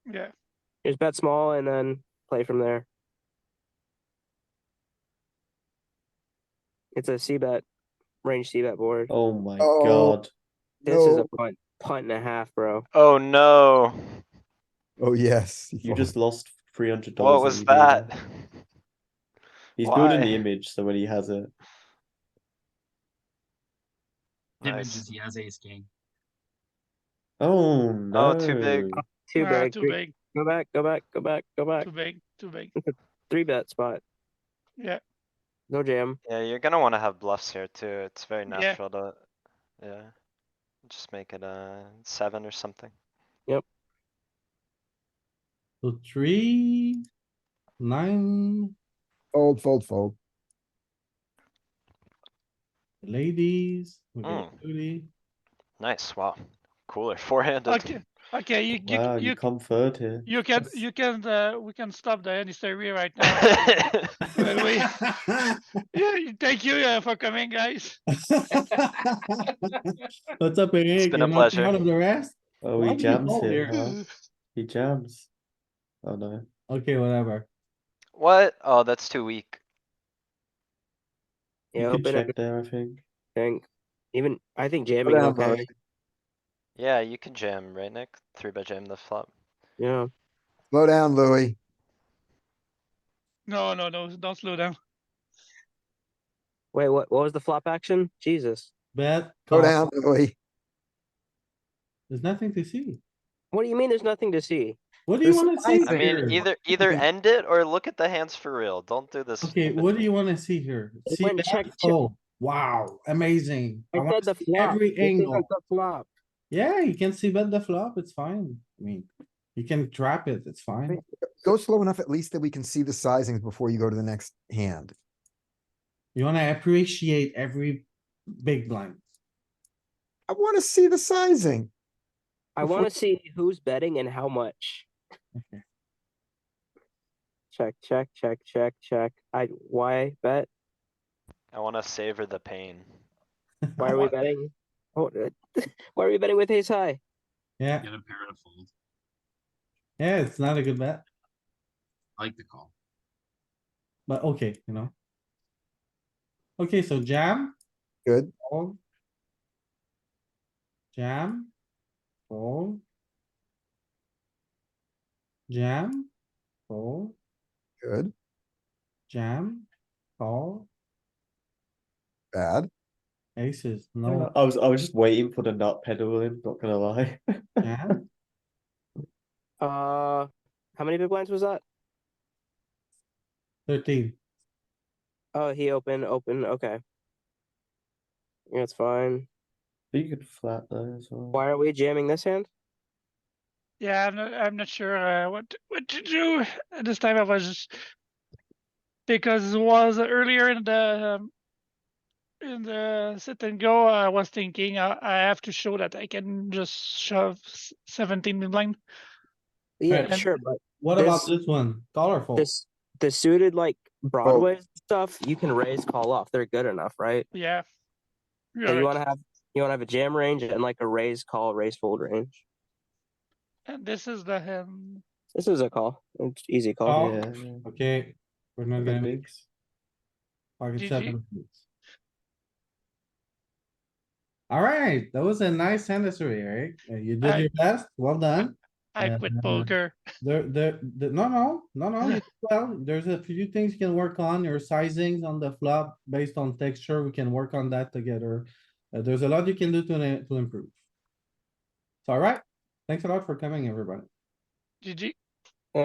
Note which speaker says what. Speaker 1: Yeah.
Speaker 2: Just bet small and then play from there. It's a C bet, range C bet board.
Speaker 3: Oh my
Speaker 4: Oh.
Speaker 3: god.
Speaker 2: This is
Speaker 4: no.
Speaker 2: a punt, punt and a half, bro.
Speaker 1: Oh no.
Speaker 5: Oh yes. he
Speaker 3: You
Speaker 5: fold.
Speaker 3: just lost three hundred dollars.
Speaker 1: What was that?
Speaker 3: He's building
Speaker 1: Why?
Speaker 3: the image, so when he has it,
Speaker 1: Nice.
Speaker 6: Image is he has ace king.
Speaker 3: oh no!
Speaker 1: Oh, too big.
Speaker 2: Too
Speaker 7: Ah,
Speaker 2: big.
Speaker 7: too
Speaker 2: three-
Speaker 7: big,
Speaker 2: Go back, go back, go back, go back.
Speaker 7: too big, too big.
Speaker 2: Three bet spot.
Speaker 7: Yeah.
Speaker 2: No jam.
Speaker 1: Yeah, you're gonna wanna have bluffs here too. It's very
Speaker 7: Yeah.
Speaker 1: natural to, yeah. Just make it a seven or something.
Speaker 8: So three, nine,
Speaker 4: Fold, fold, fold.
Speaker 8: ladies, we got
Speaker 1: Mm.
Speaker 8: booty.
Speaker 1: Nice, wow. Cooler, four-handed.
Speaker 7: Okay, okay, you, you,
Speaker 3: Wow, you,
Speaker 7: you,
Speaker 3: come third here.
Speaker 7: you can,
Speaker 3: That's-
Speaker 7: you can, uh, we can stop the any story E right now. Well, we- Yeah, you- thank you uh, for coming, guys.
Speaker 8: What's up,
Speaker 1: been
Speaker 8: Eric? You're
Speaker 1: a
Speaker 8: not
Speaker 1: pleasure.
Speaker 8: Proud of the rest?
Speaker 3: Oh,
Speaker 8: Why
Speaker 3: he
Speaker 8: do you
Speaker 3: jams
Speaker 8: fold
Speaker 3: here.
Speaker 8: here?
Speaker 3: huh? He jams. Oh no!
Speaker 8: Okay, whatever.
Speaker 1: What? Oh, that's too weak.
Speaker 2: Yeah,
Speaker 3: you can
Speaker 2: open
Speaker 3: check
Speaker 2: everything.
Speaker 3: there, I think.
Speaker 2: Even I think jamming is
Speaker 4: Whatever.
Speaker 2: okay.
Speaker 1: Yeah, you can jam, right, Nick? Three by jam the flop.
Speaker 2: Yeah.
Speaker 4: Slow down, Louis.
Speaker 7: No, no, no, don't slow down.
Speaker 2: Wait, what? What was the flop action? Jesus.
Speaker 8: Bet.
Speaker 4: Slow
Speaker 8: call.
Speaker 4: down, Louis.
Speaker 8: There's nothing to see.
Speaker 2: What do you mean? There's nothing to see.
Speaker 8: What do you
Speaker 4: There's
Speaker 8: wanna see
Speaker 1: I
Speaker 8: here?
Speaker 1: mean, either, either end it or look at the hands for real. Don't do this.
Speaker 8: Okay, what do you wanna see here?
Speaker 2: It
Speaker 8: See
Speaker 2: went
Speaker 8: that?
Speaker 2: check, check.
Speaker 8: Oh, wow, amazing. I
Speaker 2: I
Speaker 8: wanna
Speaker 2: said the
Speaker 8: see
Speaker 2: flop.
Speaker 8: Every
Speaker 2: This isn't
Speaker 8: angle.
Speaker 2: The flop.
Speaker 8: Yeah, you can see bet the flop, it's fine. I mean, you can trap it, it's fine.
Speaker 4: Go slow enough at least that we can see the sizings before you go to the next hand.
Speaker 8: You wanna appreciate every big blind.
Speaker 4: I want to see the sizing.
Speaker 2: I
Speaker 4: Before-
Speaker 2: want to see who's betting and how much.
Speaker 8: Okay.
Speaker 2: Check, check, check, check, check. I why bet?
Speaker 1: I wanna savor the pain.
Speaker 2: Why are we betting? Oh, uh, why are we betting with ace high?
Speaker 8: Yeah,
Speaker 6: Get a pair to fold.
Speaker 8: yeah, it's not a good bet,
Speaker 6: I like the call.
Speaker 8: but okay, you know. Okay, so jam,
Speaker 4: Good.
Speaker 8: fold. Jam, fold. Jam, fold.
Speaker 4: Good.
Speaker 8: Jam, call,
Speaker 4: Bad.
Speaker 8: aces,
Speaker 3: Uh,
Speaker 8: no
Speaker 3: I was I was just waiting for the nut pedal in. Not gonna lie.
Speaker 8: jam,
Speaker 2: Uh, how many big blinds was that?
Speaker 8: thirteen.
Speaker 2: Oh, he open, open. Okay, yeah, it's fine.
Speaker 3: you could flat though as well.
Speaker 2: Why are we jamming this hand?
Speaker 7: Yeah, I'm not, I'm not sure, uh, what, to- what to do. At This time I was just. Because it was earlier in the, um. In the sit and go, I was thinking I, I have to show that I can just shove s- seventeen big blind.
Speaker 2: Yeah,
Speaker 8: Right.
Speaker 2: sure, but
Speaker 8: What about
Speaker 2: This-
Speaker 8: this one? Call or fold?
Speaker 2: this the suited like Broadway stuff, you can raise call off. They're good enough, right?
Speaker 7: Yeah. You're
Speaker 2: And
Speaker 7: right.
Speaker 2: you want to have you want to have a jam range and like a raise call, raise fold range.
Speaker 7: And this is the hand.
Speaker 2: This is a call. It's easy call.
Speaker 8: Call.
Speaker 3: Yeah.
Speaker 8: Okay, we're not
Speaker 3: yeah.
Speaker 8: gonna
Speaker 3: Bigs.
Speaker 8: pocket
Speaker 7: GG.
Speaker 8: seven. Alright, that was a nice hand history, Eric. Uh, You did
Speaker 7: I-
Speaker 8: your best, well done.
Speaker 7: I quit
Speaker 8: Uh,
Speaker 7: poker.
Speaker 8: There, there, the- no, no, no, no, you did well, there's a few things you can work on, your sizings on the flop based on texture, we can work on that together. Uh, there's a lot you can do to, to improve. So alright, thanks a lot for coming, everybody.
Speaker 7: GG.